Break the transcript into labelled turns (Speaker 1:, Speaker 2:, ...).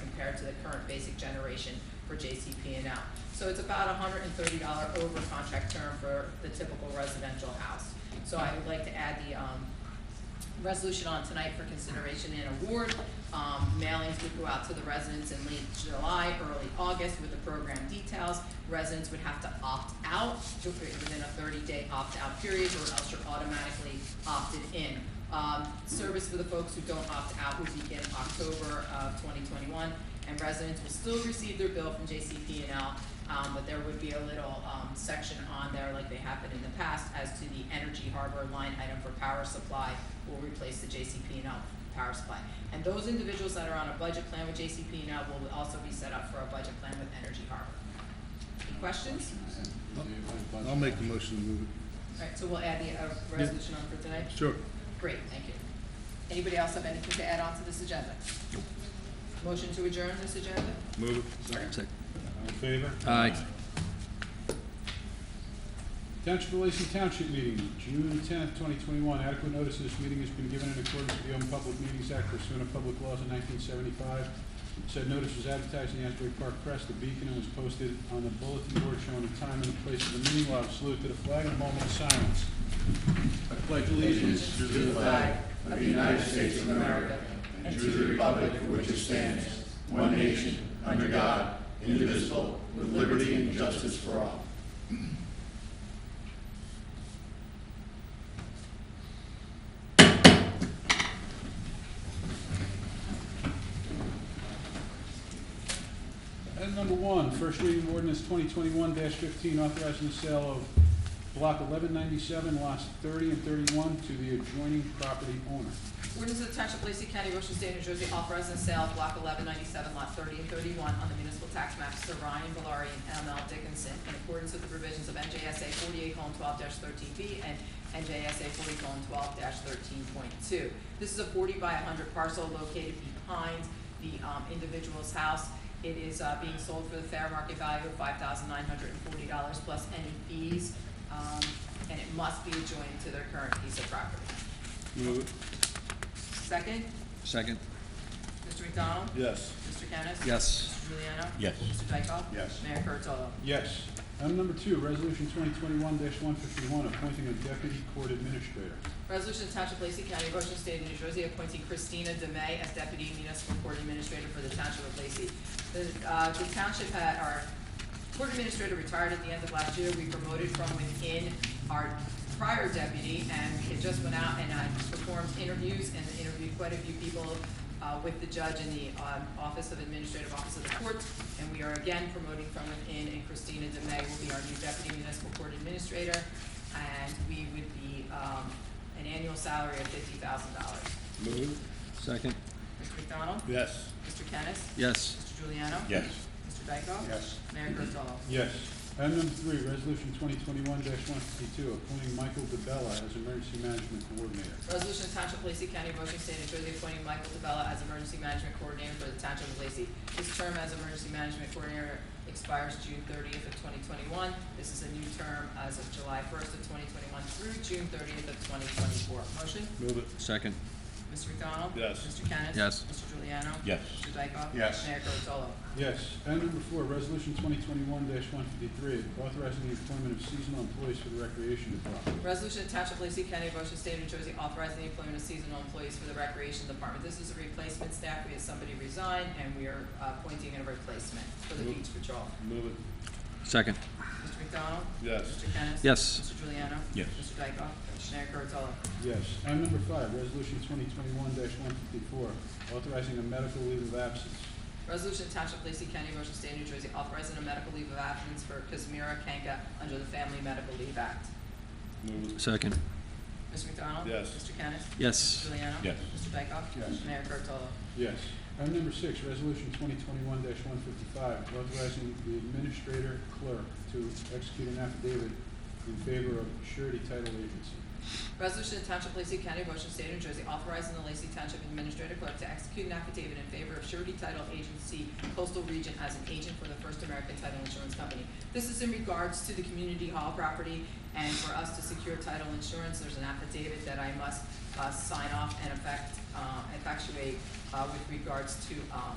Speaker 1: compared to the current basic generation for JCP&L. So it's about hundred and thirty dollar over contract term for the typical residential house. So I would like to add the, um, resolution on tonight for consideration and award. Um, mailings would go out to the residents in late July, early August with the program details. Residents would have to opt out to- within a thirty-day opt-out period or else you're automatically opted in. Um, service for the folks who don't opt out would begin October of twenty twenty-one and residents will still receive their bill from JCP&L, um, but there would be a little, um, section on there like they have been in the past as to the Energy Harbor line item for power supply will replace the JCP&L power supply. And those individuals that are on a budget plan with JCP&L will also be set up for a budget plan with Energy Harbor. Any questions?
Speaker 2: I'll make the motion to move it.
Speaker 1: Alright, so we'll add the, uh, resolution on for tonight?
Speaker 2: Sure.
Speaker 1: Great, thank you. Anybody else have anything to add on to this agenda? Motion to adjourn this agenda?
Speaker 2: Move it.
Speaker 3: Second.
Speaker 4: All in favor?
Speaker 3: Aye.
Speaker 4: Township of Lacey Township meeting, June tenth, twenty twenty-one. Adequate notice of this meeting has been given in accordance with the Open Public Meetings Act pursuant to public laws in nineteen seventy-five. Said notice was advertised in the Asbury Park Press, the Beacon, and was posted on the bulletin board showing the time and the place of the meeting. We'll have a salute to the flag and a moment of silence. I pledge allegiance to the
Speaker 1: Aye.
Speaker 4: Item number one, first reading of ordinance twenty twenty-one fifteen, authorizing the sale of block eleven ninety-seven, lots thirty and thirty-one to the adjoining property owner.
Speaker 1: Ordinance of the Township of Lacey County, Ocean State, New Jersey, authorizing the sale of block eleven ninety-seven, lot thirty and thirty-one on the municipal tax maps to Ryan Valari and ML Dickinson in accordance with the provisions of NJSA forty-eight twelve thirteen B and NJSA forty twelve thirteen point two. This is a forty by hundred parcel located behind the, um, individual's house. It is, uh, being sold for the fair market value of five thousand nine hundred and forty dollars plus any fees, um, and it must be adjoined to their current piece of property.
Speaker 2: Move it.
Speaker 1: Second?
Speaker 3: Second.
Speaker 1: Mr. McDonald?
Speaker 2: Yes.
Speaker 1: Mr. Kennis?
Speaker 3: Yes.
Speaker 1: Mr. Juliano?
Speaker 2: Yes.
Speaker 1: Mr. Dykoff?
Speaker 2: Yes.
Speaker 1: Mayor Kurtolo?
Speaker 4: Yes. Item number two, resolution twenty twenty-one one fifty-one, appointing a deputy court administrator.
Speaker 1: Resolution to Township of Lacey County, Ocean State of New Jersey, appointing Christina DeMay as Deputy Municipal Court Administrator for the Township of Lacey. The, uh, the township had, our court administrator retired at the end of last year. We promoted from within our prior deputy, and it just went out and, uh, performed interviews, and interviewed quite a few people, uh, with the judge in the, um, Office of Administrative Office of the Courts. And we are again promoting from within, and Christina DeMay will be our new Deputy Municipal Court Administrator. And we would be, um, an annual salary of fifty thousand dollars.
Speaker 2: Move it.
Speaker 3: Second.
Speaker 1: Mr. McDonald?
Speaker 2: Yes.
Speaker 1: Mr. Kennis?
Speaker 3: Yes.
Speaker 1: Mr. Juliano?
Speaker 2: Yes.
Speaker 1: Mr. Dykoff?
Speaker 2: Yes.
Speaker 1: Mayor Kurtolo?
Speaker 4: Yes. Item number three, resolution twenty twenty-one one fifty-two, appointing Michael DeBella as emergency management coordinator.
Speaker 1: Resolution of Township of Lacey County, Ocean State, New Jersey, appointing Michael DeBella as Emergency Management Coordinator for the Township of Lacey. His term as Emergency Management Coordinator expires June thirtieth of twenty twenty-one. This is a new term as of July first of twenty twenty-one through June thirtieth of twenty twenty-four. Motion?
Speaker 2: Move it.
Speaker 3: Second.
Speaker 1: Mr. McDonald?
Speaker 2: Yes.
Speaker 1: Mr. Kennis?
Speaker 3: Yes.
Speaker 1: Mr. Juliano?
Speaker 2: Yes.
Speaker 1: Mr. Dykoff?
Speaker 2: Yes.
Speaker 1: Mayor Kurtolo?
Speaker 4: Yes. Item number four, resolution twenty twenty-one one fifty-three, authorizing the employment of seasonal employees for the recreation department.
Speaker 1: Resolution to Township of Lacey County, Ocean State, New Jersey, authorizing the employment of seasonal employees for the Recreation Department. This is a replacement staff. We had somebody resign, and we are uh, appointing a replacement for the beach patrol.
Speaker 2: Move it.
Speaker 3: Second.
Speaker 1: Mr. McDonald?
Speaker 2: Yes.
Speaker 1: Mr. Kennis?
Speaker 3: Yes.
Speaker 1: Mr. Juliano?
Speaker 2: Yes.
Speaker 1: Mr. Dykoff? Mayor Kurtolo?
Speaker 4: Yes. Item number five, resolution twenty twenty-one one fifty-four, authorizing a medical leave of absence.
Speaker 1: Resolution to Township of Lacey County, Ocean State, New Jersey, authorizing a medical leave of absence for Kazmira Kanka under the Family Medical Leave Act.
Speaker 2: Move it.
Speaker 3: Second.
Speaker 1: Mr. McDonald?
Speaker 2: Yes.
Speaker 1: Mr. Kennis?
Speaker 3: Yes.
Speaker 1: Mr. Juliano?
Speaker 2: Yes.
Speaker 1: Mr. Dykoff?
Speaker 4: Yes.
Speaker 1: Mayor Kurtolo?
Speaker 4: Yes. Item number six, resolution twenty twenty-one one fifty-five, authorizing the administrator clerk to execute an affidavit in favor of surety title agency.
Speaker 1: Resolution to Township of Lacey County, Ocean State, New Jersey, authorizing the Lacey Township Administrative Clerk to execute an affidavit in favor of surety title agency coastal region as an agent for the First American Title Insurance Company. This is in regards to the community hall property, and for us to secure title insurance, there's an affidavit that I must, uh, sign off and effect, uh, effectuate, uh, with regards to, um,